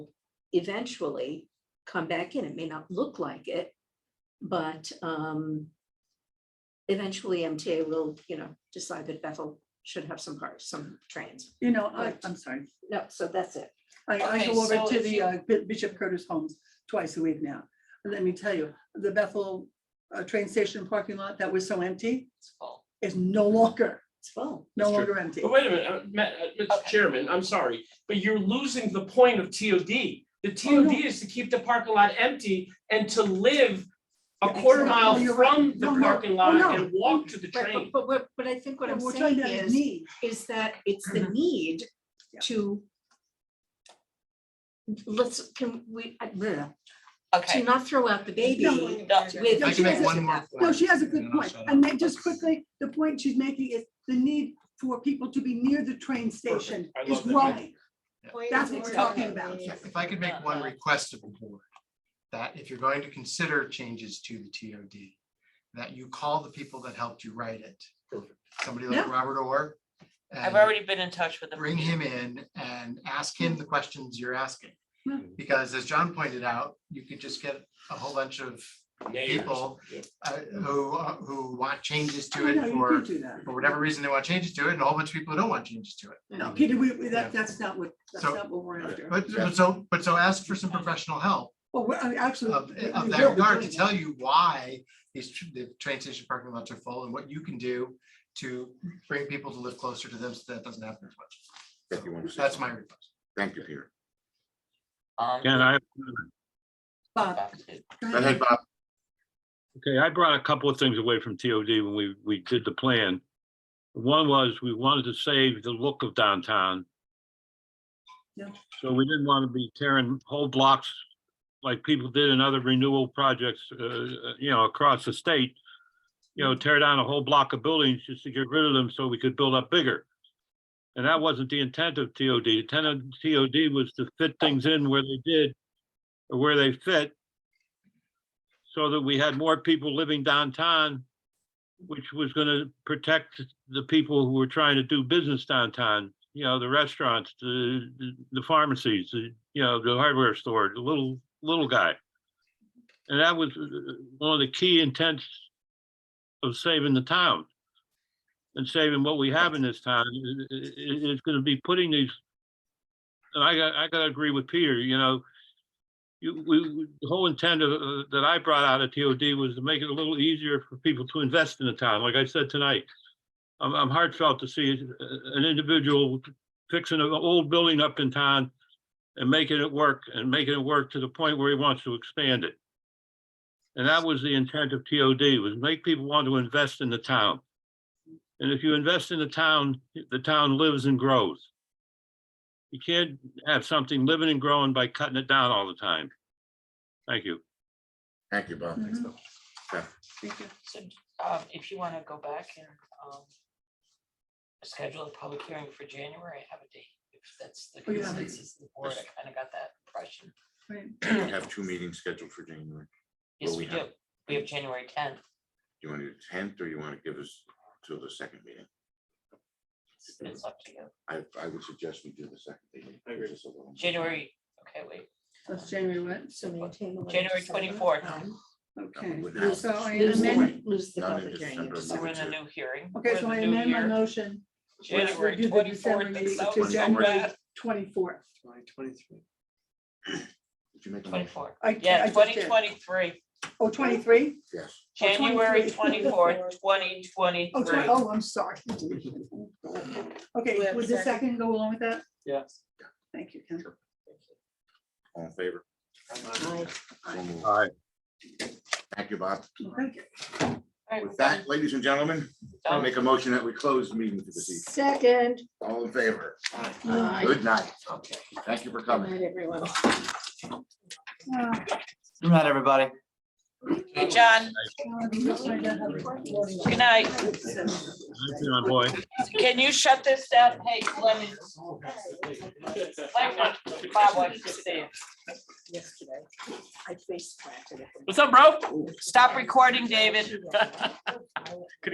eventually come back in. It may not look like it, but um, eventually MTA will, you know, decide that Bethel should have some cars, some trains. You know, I, Right. I'm sorry. No, so that's it. I, I Okay, go over so to if the you- uh, Bi- Bishop Curtis Homes twice a week now. And Let me tell you, the Bethel uh, train station parking lot that was so empty It's full. is no longer, It's full. no That's true. longer empty. But wait a minute, uh, Ma- uh, Mr. Okay. Chairman, I'm sorry, but you're losing the point of TOD. The no. TOD is to keep the parking lot empty and to live a quarter exactly. mile No, you're from right. the No, no. parking Oh, lot no. and walk to the Right, but- train. but what, but I think what Yeah, I'm We're talking saying about his is, need. is that it's the need Yeah. to let's, can we, I- bleh, to Okay. not throw out the baby. No, Dr. with- No, I she can make has a- one more. No, she has a point, good and then I'll point. shut And up. then just quickly, the point she's making is the need for people to be near the train station I is love that. growing. That's what we're talking about. If I could make one request of the board, that if you're going to consider changes to the TOD, that you call the people that helped you write it. Somebody like Yeah. Robert Orr. I've and already been in touch with them. Bring him in and ask him the questions you're asking. Yeah. Because as John pointed out, you could just get a whole bunch of Neighbors. people Yeah. uh, who, uh, who want changes I to know, it you could for, do that. for whatever reason they want changes to it, and a whole bunch of people who don't want changes to it. No, Peter, we, we- that, Yeah. that's not what, that's So- uh, not what we're after. Oh, But but so, but so ask for some professional help Well, we're, I mean, of, absolutely. of that regard to tell you why these, tr- the train station parking lots are full and what you can do to bring people to live closer to them so that doesn't happen as much. If you want to say That's my something. request. Thank you, Peter. Um, And I, Bob, back to- go Go ahead. ahead, Bob. okay, I brought a couple of things away from TOD when we, we did the plan. One was we wanted to save the look of downtown. Yeah. So we didn't want to be tearing whole blocks like people did in other renewal projects, uh, uh, you know, across the state. You know, tear down a whole block of buildings just to get rid of them so we could build up bigger. And that wasn't the intent of TOD. The intent of TOD was to fit things in where they did, or where they fit. so that we had more people living downtown, which was gonna protect the people who were trying to do business downtown. You know, the restaurants, the, the pharmacies, the, you know, the hardware store, the little, little guy. And that was uh, one of the key intents of saving the town. And saving what we have in this town, I- i- i- it's gonna be putting these. And I got, I gotta agree with Peter, you know, you, we, we- the whole intent of, uh, that I brought out of TOD was to make it a little easier for people to invest in the town, like I said tonight. I'm, I'm heartfelt to see uh, an individual fixing an old building up in town and making it work and making it work to the point where he wants to expand it. And that was the intent of TOD, was make people want to invest in the town. And if you invest in the town, the town lives and grows. You can't have something living and growing by cutting it down all the time. Thank you. Thank you, Bob. Mhm. So, um, if you want to go back and, um, schedule a public hearing for January, I have a date. If that's the Oh, you have it. consensus of the board, I kind of got that impression. Right. We have two meetings scheduled for January. Yes, Well, we we do. have- We have January tenth. Do you want to do tenth or you want to give us till the second meeting? It's up to you. I, I would suggest we do the second meeting. I agree. Just a little- January, okay, wait, That's January what? So maintain. the January legislative 24th. time. No, we Okay. wouldn't have. So I Lose the- amend, Lose the Not in public hearing. in December. so December. we're in a two. new hearing. okay, We're so in the I new amend my year. motion. Yes, we January do the December twenty-fourth, meeting it's so to January bad. twenty-fourth. Did you make a motion? Twenty-four, I- I yeah, just twenty did. twenty-three, Oh, twenty-three? Yes. January 23. twenty-fourth, twenty Oh, twen- twenty-three. oh, I'm sorry. We Okay, have would the second. second go along with that? Yes. Thank you, Ken. All in favor? So moved. All right. Thank you, Bob. Thank you. With that, ladies and gentlemen, I make a motion that we close the meeting for this evening. Second, All in favor? Uh, Aye. Good night. Thank you for good coming. night, everyone. Uh, Good night, everybody. Hey, John, good night. Thank you, my boy. Can you shut this down? Hey, Lemon, Lemon, Bob wants to see you. Yesterday, I face planted. What's up, bro? Stop recording, David.